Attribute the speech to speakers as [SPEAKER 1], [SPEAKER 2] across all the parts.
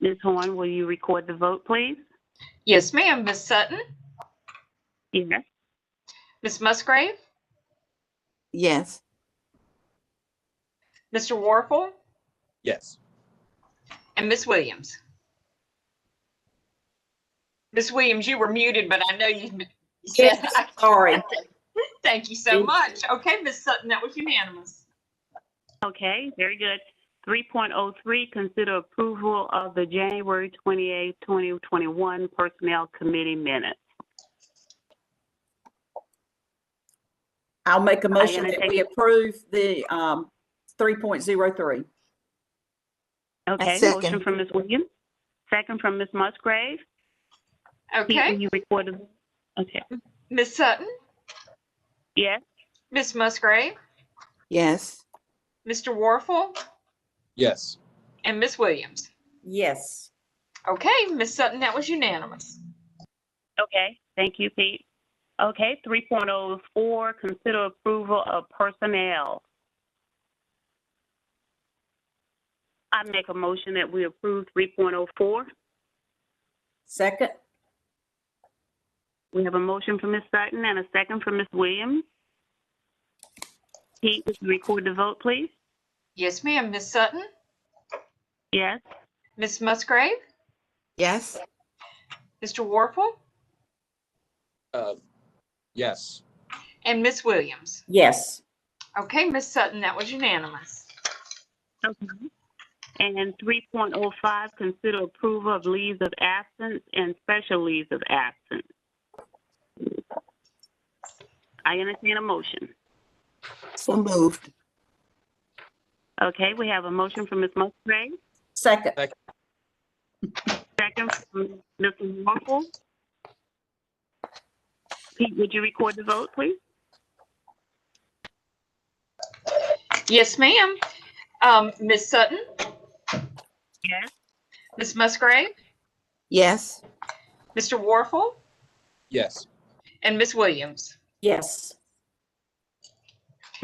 [SPEAKER 1] Ms. Horn, will you record the vote, please?
[SPEAKER 2] Yes, ma'am. Miss Sutton,
[SPEAKER 1] Yes.
[SPEAKER 2] Miss Musgrave,
[SPEAKER 3] Yes.
[SPEAKER 2] Mr. Warfel,
[SPEAKER 4] Yes.
[SPEAKER 2] and Miss Williams. Miss Williams, you were muted, but I know you. you said-
[SPEAKER 5] Yes, sorry.
[SPEAKER 2] Thank you so much. Okay, Miss Sutton, that was unanimous.
[SPEAKER 1] Okay, very good. 3.03, consider approval of the January 28, 2021 Personnel Committee Minutes.
[SPEAKER 5] I'll make a motion that
[SPEAKER 1] entertain-
[SPEAKER 5] we approve the um, 3.03.
[SPEAKER 1] Okay,
[SPEAKER 3] second.
[SPEAKER 1] motion from Ms. Williams, second from Ms. Musgrave. Pete,
[SPEAKER 2] Okay,
[SPEAKER 1] Will you record the, okay,
[SPEAKER 2] Miss Sutton,
[SPEAKER 1] yes,
[SPEAKER 2] Miss Musgrave,
[SPEAKER 3] Yes.
[SPEAKER 2] Mr. Warfel,
[SPEAKER 4] Yes.
[SPEAKER 2] and Miss Williams.
[SPEAKER 5] Yes.
[SPEAKER 2] Okay, Miss Sutton, that was unanimous.
[SPEAKER 1] okay, thank you, Pete. Okay, 3.04, consider approval of personnel. I make a motion that we approve 3.04.
[SPEAKER 5] Second?
[SPEAKER 1] We have a motion from Ms. Sutton and a second from Ms. Williams. Pete, would you record the vote, please?
[SPEAKER 2] Yes, ma'am. Miss Sutton,
[SPEAKER 1] Yes,
[SPEAKER 2] Miss Musgrave,
[SPEAKER 3] Yes.
[SPEAKER 2] Mr. Warfel,
[SPEAKER 4] Uh, yes.
[SPEAKER 2] and Miss Williams.
[SPEAKER 5] Yes.
[SPEAKER 2] Okay, Miss Sutton, that was unanimous.
[SPEAKER 1] Okay. And three point oh five, consider approval of leaves of absence and special leaves of absence. I entertain a motion.
[SPEAKER 3] So moved.
[SPEAKER 1] Okay, we have a motion from Ms. Musgrave,
[SPEAKER 5] Second?
[SPEAKER 1] second from Mr. Warfel. Pete, would you record the vote, please?
[SPEAKER 2] Yes, ma'am. Um, Ms. Sutton,
[SPEAKER 1] Yes.
[SPEAKER 2] Miss Musgrave,
[SPEAKER 3] Yes.
[SPEAKER 2] Mr. Warfel,
[SPEAKER 4] Yes.
[SPEAKER 2] and Miss Williams.
[SPEAKER 5] Yes.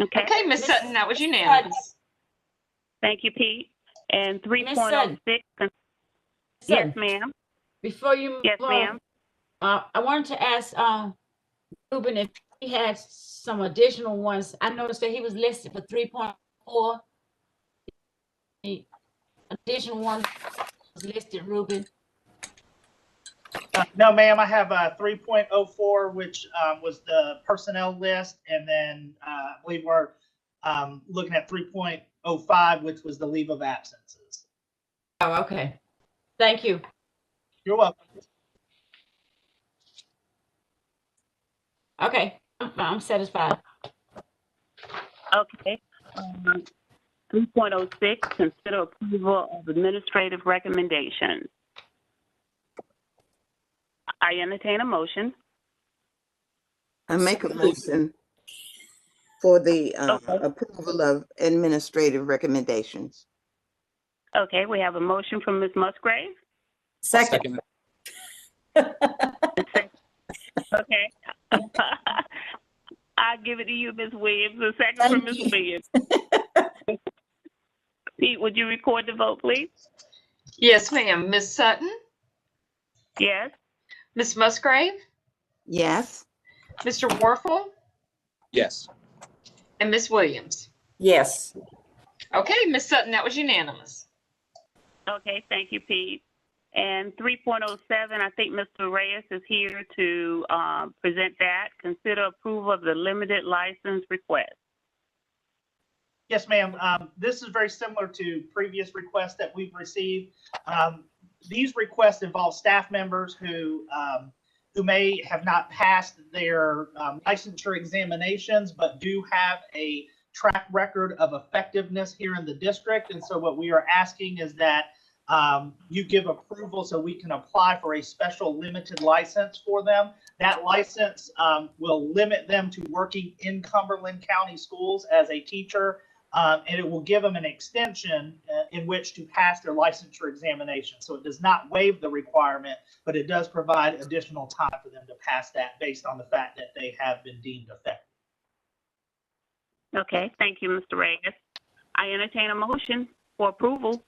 [SPEAKER 1] Okay,
[SPEAKER 2] Okay, Miss
[SPEAKER 6] Miss
[SPEAKER 2] Sutton, that was unanimous.
[SPEAKER 1] thank you, Pete. And three
[SPEAKER 6] Ms.
[SPEAKER 1] point oh
[SPEAKER 6] Sutton.
[SPEAKER 1] six, yes,
[SPEAKER 6] Sutton,
[SPEAKER 1] ma'am,
[SPEAKER 6] before you. move
[SPEAKER 1] yes,
[SPEAKER 6] on,
[SPEAKER 1] ma'am.
[SPEAKER 6] Uh, I wanted to ask, um, Ruben if he had some additional ones. I noticed that he was listed for three point four. Additional one was listed, Ruben.
[SPEAKER 7] Uh, No, ma'am, I have uh, 3.04, which um, was the personnel list, and then uh, I believe we're um, looking at 3.05, which was the leave of absences.
[SPEAKER 6] Oh, okay. Thank you.
[SPEAKER 7] You're welcome.
[SPEAKER 6] Okay, I'm, I'm satisfied.
[SPEAKER 1] Okay. Um, Three point oh six, consider approval of administrative recommendations. I entertain a motion.
[SPEAKER 3] I make a motion for the uh,
[SPEAKER 1] Okay.
[SPEAKER 3] approval of administrative recommendations.
[SPEAKER 1] Okay, we have a motion from Ms. Musgrave.
[SPEAKER 5] Second?
[SPEAKER 1] Okay. I give it to you, Ms. Williams, a second from Ms.
[SPEAKER 5] Thank you.
[SPEAKER 1] Williams. Pete, would you record the vote, please?
[SPEAKER 2] Yes, ma'am. Miss Sutton,
[SPEAKER 1] Yes,
[SPEAKER 2] Miss Musgrave,
[SPEAKER 3] Yes.
[SPEAKER 2] Mr. Warfel,
[SPEAKER 4] Yes.
[SPEAKER 2] and Miss Williams.
[SPEAKER 5] Yes.
[SPEAKER 2] Okay, Miss Sutton, that was unanimous.
[SPEAKER 1] okay, thank you, Pete. And three point oh seven, I think Mr. Reyes is here to, uh, present that. Consider approval of the limited license request.
[SPEAKER 7] Yes, ma'am. Um, This is very similar to previous requests that we've received. Um, These requests involve staff members who, um, who may have not passed their um, licensure examinations, but do have a track record of effectiveness here in the district. And so what we are asking is that um, you give approval so we can apply for a special limited license for them. That license um, will limit them to working in Cumberland County schools as a teacher um, and it will give them an extension uh, in which to pass their licensure examination. So it does not waive the requirement, but it does provide additional time for them to pass that based on the fact that they have been deemed effective.
[SPEAKER 1] Okay, thank you, Mr. Reyes. I entertain a motion for approval.